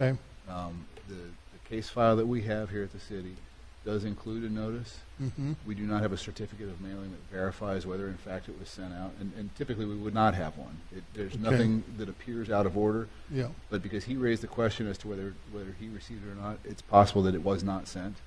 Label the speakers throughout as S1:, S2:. S1: Okay.
S2: Um, the, the case file that we have here at the city does include a notice.
S1: Mhm.
S2: We do not have a certificate of mailing that verifies whether in fact it was sent out, and, and typically we would not have one. It, there's
S1: Okay.
S2: nothing that appears out of order,
S1: Yeah.
S2: but because he raised the question as to whether, whether he received it or not, it's possible that it was not sent,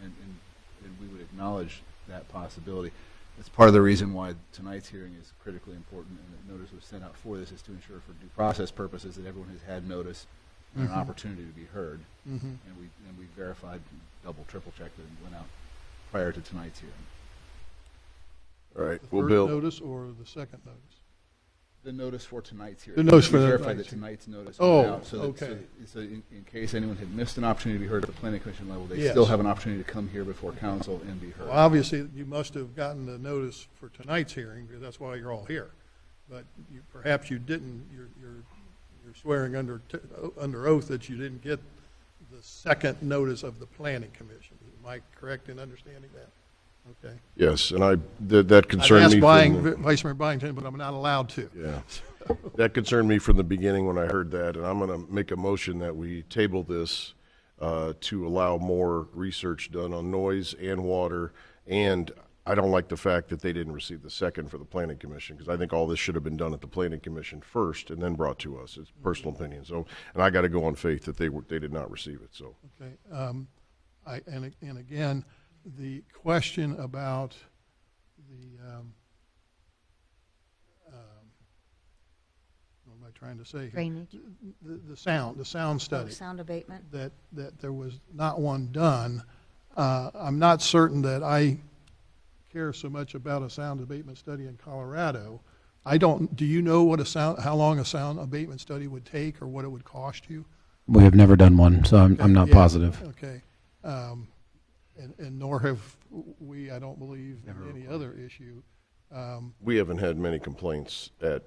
S2: and, and, and we would acknowledge that possibility. That's part of the reason why tonight's hearing is critically important, and that notice was sent out for this, is to ensure for due process purposes that everyone has had notice and an
S1: Mhm.
S2: opportunity to be heard,
S1: Mhm.
S2: and we, and we verified, double, triple checked that it went out prior to tonight's hearing.
S3: All right,
S1: The
S3: we'll
S1: first
S3: build,
S1: Notice or the second notice?
S2: The notice for tonight's hearing.
S1: The notice for
S2: We
S1: the-
S2: verified that tonight's notice
S1: Oh,
S2: went out. so that- so
S1: okay.
S2: that- So in, in case anyone had missed an opportunity to be heard at the planning commission level, they
S1: Yes.
S2: still have an opportunity to come here before council and be
S1: Well,
S2: heard.
S1: obviously, you must have gotten the notice for tonight's hearing, because that's why you're all here. But you, perhaps you didn't, you're, you're, you're swearing under, t- o- under oath that you didn't get the second notice of the planning commission. Am I correct in understanding that? Okay.
S3: yes, and I, that, that
S1: I've
S3: concerned me.
S1: asked
S3: from
S1: Bying,
S3: the-
S1: Vice Mayor Byington, but I'm not allowed to.
S3: Yeah, that concerned me from the beginning when I heard that, and I'm gonna make a motion that we table this, uh, to allow more research done on noise and water, and I don't like the fact that they didn't receive the second for the planning commission, because I think all this should have been done at the planning commission first and then brought to us, it's personal opinion, so, and I gotta go on faith that they were, they did not receive it, so.
S1: Okay, um, I, and, and again, the question about the, um, um, what am I trying to say? here?
S4: Drainage.
S1: The, the sound, the sound
S4: Oh,
S1: study,
S4: Sound abatement.
S1: that, that there was not one done. Uh, I'm not certain that I care so much about a sound abatement study in Colorado. I don't, do you know what a sound, how long a sound abatement study would take or what it would cost you?
S5: We have never done one, so I'm, I'm not
S1: Yeah,
S5: positive.
S1: Okay. Um, And, and nor have we, I don't believe, in any other issue. Um,
S3: we haven't had many complaints at,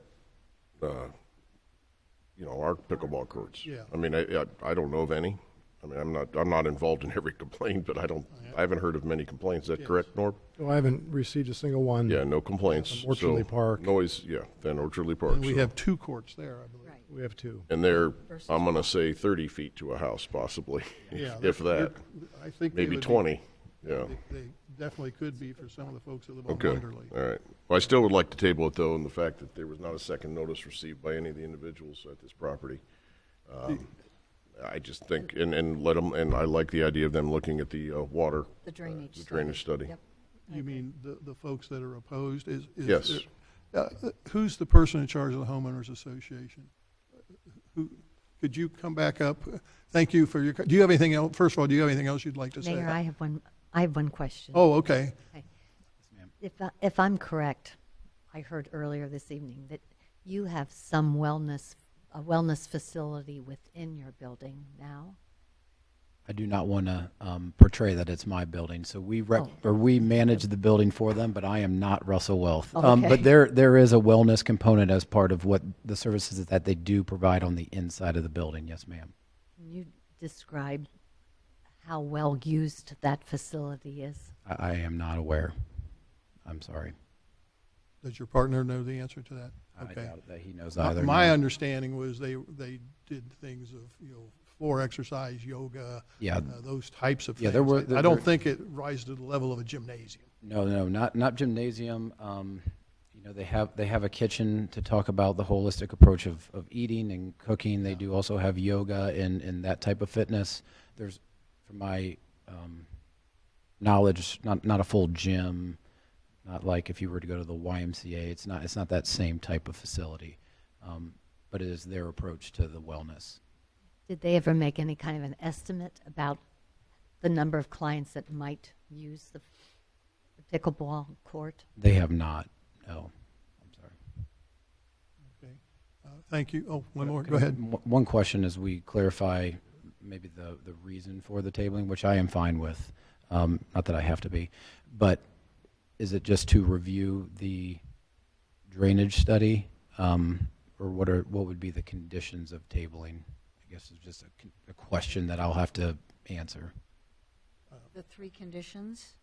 S3: uh, you know, our pickleball courts.
S1: Yeah.
S3: I mean, I, I, I don't know of any. I mean, I'm not, I'm not involved in every complaint, but I don't, I haven't heard of many complaints. Is that
S1: Oh, Yes.
S3: correct, Norm?
S6: No, I haven't received a single one.
S3: Yeah, no complaints.
S6: From Orchardly
S3: So,
S6: Park.
S3: Noise, yeah, then Orchardly Park.
S1: And we
S3: so-
S1: have two courts there, I believe.
S4: Right.
S6: We have two.
S3: And they're,
S4: Versus-
S3: I'm gonna say thirty feet to a house possibly,
S1: Yeah,
S3: if that,
S1: I think. they
S3: maybe
S1: would be-
S3: twenty, yeah.
S1: They they definitely could be for some of the folks that live on
S3: Okay, all
S1: Wonderly.
S3: right. Well, I still would like to table it though, and the fact that there was not a second notice received by any of the individuals at this property. Um, I just think, and, and let them, and I like the idea of them looking at the uh, water.
S4: The drainage
S3: The drainage study.
S4: Yep.
S1: You mean the, the folks that are opposed is? is
S3: Yes.
S1: there- uh, Who's the person in charge of the homeowners association? Who, could you come back up? Thank you for your, co- do you have anything else, first of all, do you have anything else you'd like to say?
S4: Mayor, I have one, I have one question.
S1: Oh, okay.
S4: If, I- if I'm correct, I heard earlier this evening that you have some wellness, a wellness facility within your building now?
S5: I do not want to um, portray that it's my building, so we rep, or we manage the building for them, but I am not Russell Wealth. Um,
S4: Okay.
S5: But there, there is a wellness component as part of what the services that they do provide on the inside of the building. Yes, ma'am.
S4: Can you describe how well used that facility is?
S5: I, I am not aware. I'm sorry.
S1: Does your partner know the answer to that?
S5: I
S1: Okay.
S5: doubt that he knows
S1: My-
S5: either.
S1: My
S5: no.
S1: understanding was they, they did things of, you know, floor exercise, yoga,
S5: Yeah.
S1: uh, those types of things.
S5: Yeah, there were-
S1: I don't
S5: there-
S1: think it rises to the level of a gymnasium.
S5: No, no, not not gymnasium. Um, you know, they have they have a kitchen to talk about the holistic approach of, of eating and cooking. They do also have yoga and, and that type of fitness. There's, from my um, knowledge, not not a full gym, not like if you were to go to the YMCA. It's not it's not that same type of facility, um, but it is their approach to the wellness.
S4: Did they ever make any kind of an estimate about the number of clients that might use the the pickleball court?
S5: They have not. No, I'm sorry.
S1: Okay. Uh, Thank you. Oh, one more, go ahead.
S5: M- One question as we clarify maybe the, the reason for the tabling, which I am fine with, um, not that I have to be, but is it just to review the drainage study? Um, or what are, what would be the conditions of tabling? I guess it's just a, con- a question that I'll have to answer.
S7: The three conditions?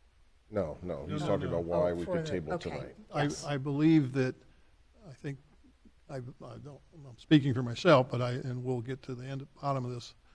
S3: No, no, he's
S1: no,
S3: talking
S1: no.
S3: about why
S7: Oh,
S3: we
S7: for
S3: could
S7: the-
S3: table
S7: okay.
S3: tonight.
S1: I,
S7: Yes.
S1: I believe that, I think, I, I don't, I'm speaking for myself, but I, and we'll get to the end, bottom of this